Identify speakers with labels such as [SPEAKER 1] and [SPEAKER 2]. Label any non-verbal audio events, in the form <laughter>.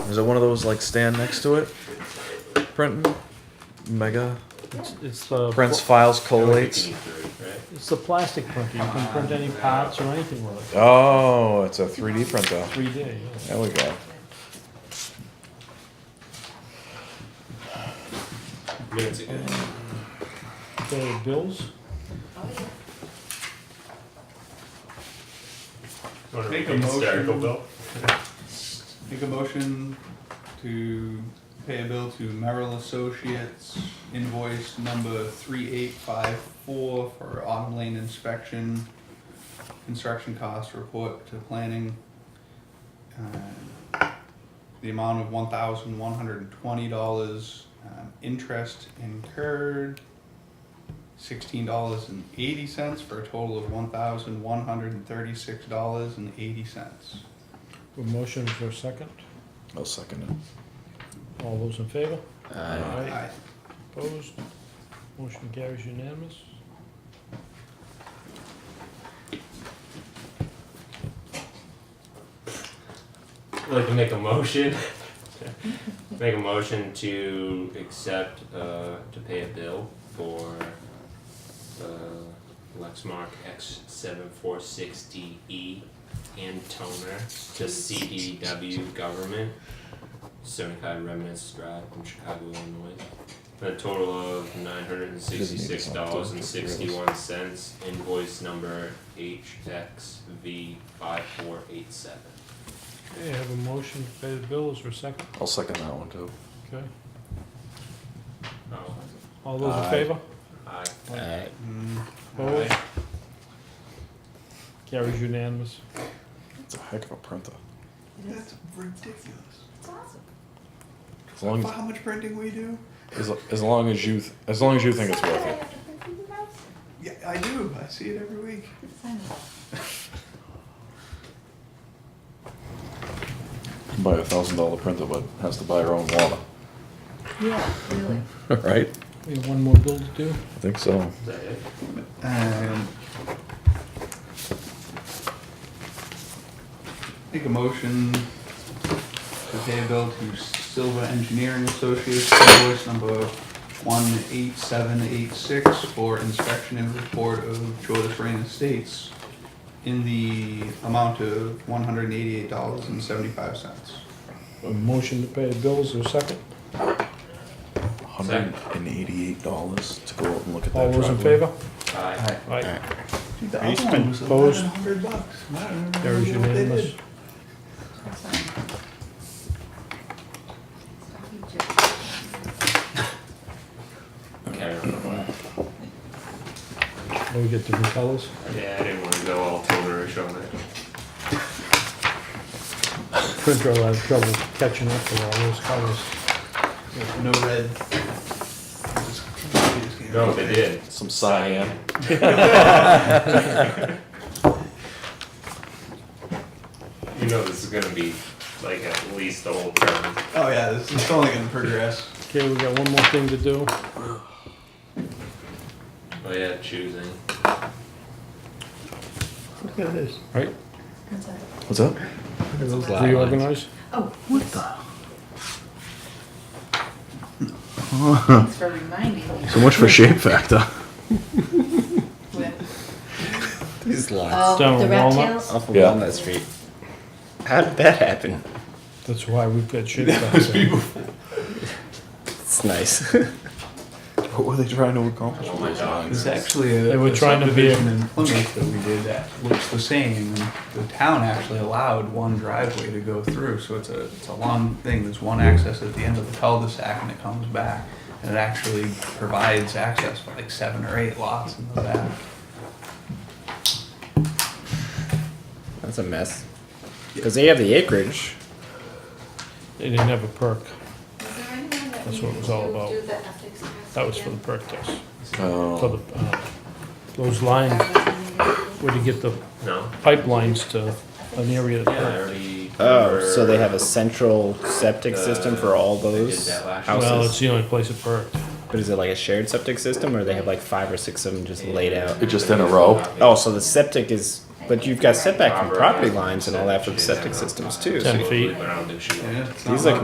[SPEAKER 1] Is it one of those like stand next to it? Printing? Mega?
[SPEAKER 2] It's- It's the,
[SPEAKER 1] Prints
[SPEAKER 2] pl-
[SPEAKER 1] files collates?
[SPEAKER 2] it's the plastic printer, you can print any parts or anything with it,
[SPEAKER 1] Oh, it's a 3D printer.
[SPEAKER 2] three D, yeah.
[SPEAKER 1] There we go.
[SPEAKER 3] Minutes ago.
[SPEAKER 2] Okay, bills,
[SPEAKER 3] Wanna
[SPEAKER 4] Make a
[SPEAKER 3] read the hysterical
[SPEAKER 4] motion.
[SPEAKER 3] bill?
[SPEAKER 4] Make a motion to pay a bill to Merrill Associates invoice number three eight five four for autumn lane inspection, construction cost report to planning. um, The amount of one thousand one hundred and twenty dollars, um, interest incurred, sixteen dollars and eighty cents for a total of one thousand one hundred and thirty-six dollars and eighty cents.
[SPEAKER 2] a motion for a second,
[SPEAKER 1] I'll second it.
[SPEAKER 2] all those in favor?
[SPEAKER 1] Aye.
[SPEAKER 2] Aye. Opposed, motion carries unanimous.
[SPEAKER 3] I'd like to make a motion. Make a motion to accept, uh, to pay a bill for, uh, Lexmark X seven four six D E and toner to CDW government, seventy-five Remnants Drive from Chicago, Illinois. For a total of nine hundred and sixty-six dollars and sixty-one cents, invoice number HXV five four eight seven.
[SPEAKER 2] Okay, have a motion to pay the bills for a second,
[SPEAKER 1] I'll second that one too.
[SPEAKER 2] okay,
[SPEAKER 3] Oh,
[SPEAKER 2] all those in
[SPEAKER 1] Aye.
[SPEAKER 2] favor?
[SPEAKER 3] aye.
[SPEAKER 4] Mm,
[SPEAKER 2] Opposed? Carries unanimous.
[SPEAKER 1] It's a heck of a printer.
[SPEAKER 4] That's ridiculous.
[SPEAKER 1] As long as,
[SPEAKER 4] how much printing we do?
[SPEAKER 1] as, as long as you th- as long as you think it's worth it.
[SPEAKER 4] Yeah, I do. I see it every week.
[SPEAKER 1] Buy a thousand dollar printer, but has to buy her own water.
[SPEAKER 5] Yeah, really.
[SPEAKER 1] <laughs> right?
[SPEAKER 2] We have one more bill to do,
[SPEAKER 1] I think so.
[SPEAKER 3] Is that it?
[SPEAKER 4] Um, make a motion to pay a bill to Silva Engineering Associates, invoice number one eight seven eight six for inspection and report of Joyous Rain Estates in the amount of one hundred and eighty-eight dollars and seventy-five cents.
[SPEAKER 2] a motion to pay the bills for a second,
[SPEAKER 1] Hundred and eighty-eight dollars to go out and look at that.
[SPEAKER 2] all those in
[SPEAKER 1] driveway.
[SPEAKER 2] favor?
[SPEAKER 3] Aye.
[SPEAKER 2] Aye.
[SPEAKER 4] Dude, the
[SPEAKER 2] Are you
[SPEAKER 4] other one was
[SPEAKER 2] opposed?
[SPEAKER 4] eleven hundred bucks. I don't remember
[SPEAKER 2] Carries
[SPEAKER 4] what they did.
[SPEAKER 2] unanimous.
[SPEAKER 3] Okay.
[SPEAKER 2] Now we get different colors.
[SPEAKER 3] Yeah, I didn't want to go all tonerish on it.
[SPEAKER 2] Printer will have trouble catching up with all those colors.
[SPEAKER 4] No red.
[SPEAKER 3] No, they did.
[SPEAKER 1] Some cyan.
[SPEAKER 3] You know this is gonna be like at least the whole term.
[SPEAKER 4] Oh yeah, this is only gonna progress.
[SPEAKER 2] Okay, we got one more thing to do.
[SPEAKER 3] Oh yeah, choosing.
[SPEAKER 2] Look at this. Right,
[SPEAKER 1] What's up?
[SPEAKER 2] reorganize.
[SPEAKER 5] Oh, what the? Thanks for reminding me.
[SPEAKER 1] So much for shape factor.
[SPEAKER 5] With-
[SPEAKER 6] These lots
[SPEAKER 2] Down
[SPEAKER 5] Oh, the
[SPEAKER 2] on
[SPEAKER 5] rat
[SPEAKER 2] Walnut.
[SPEAKER 5] tails?
[SPEAKER 6] off of
[SPEAKER 1] Yeah.
[SPEAKER 6] Walnut Street. How did that happen?
[SPEAKER 2] That's why we've got shit back there.
[SPEAKER 6] It's nice.
[SPEAKER 1] What were they trying to accomplish?
[SPEAKER 3] Oh my god.
[SPEAKER 4] It's actually a.
[SPEAKER 2] They were
[SPEAKER 4] a
[SPEAKER 2] trying to be a-
[SPEAKER 4] subdivision in Plymouth that we did that looks the same. and The town actually allowed one driveway to go through, so it's a, it's a long thing. There's one access at the end of the cul-de-sac and it comes back. And it actually provides access for like seven or eight lots in the back.
[SPEAKER 6] That's a mess. Because they have the acreage.
[SPEAKER 2] They didn't have a perk.
[SPEAKER 7] Is there anyone that
[SPEAKER 2] That's
[SPEAKER 7] needs
[SPEAKER 2] what it was all
[SPEAKER 7] to
[SPEAKER 2] about.
[SPEAKER 7] do the ethics test
[SPEAKER 2] That was for the
[SPEAKER 7] again?
[SPEAKER 2] perk test. For
[SPEAKER 1] Oh,
[SPEAKER 2] the, uh, those lines, where to get the
[SPEAKER 3] No?
[SPEAKER 2] pipelines to an area
[SPEAKER 3] Yeah, I
[SPEAKER 2] that.
[SPEAKER 3] already.
[SPEAKER 6] Oh, so they have a central septic system for all
[SPEAKER 3] They did
[SPEAKER 6] those
[SPEAKER 3] that last year.
[SPEAKER 2] Well,
[SPEAKER 6] houses.
[SPEAKER 2] it's the only place it perked.
[SPEAKER 6] But is it like a shared septic system or they have like five or six of them just laid out?
[SPEAKER 1] It just in a row?
[SPEAKER 6] Oh, so the septic is, but you've got setback from
[SPEAKER 3] Robert
[SPEAKER 6] property
[SPEAKER 3] has
[SPEAKER 6] lines and all that for the
[SPEAKER 3] said she
[SPEAKER 6] septic
[SPEAKER 3] didn't have
[SPEAKER 6] systems too.
[SPEAKER 2] Ten
[SPEAKER 6] So
[SPEAKER 2] feet.
[SPEAKER 3] But I don't think she.
[SPEAKER 4] Yeah, it's
[SPEAKER 6] These
[SPEAKER 4] not
[SPEAKER 6] look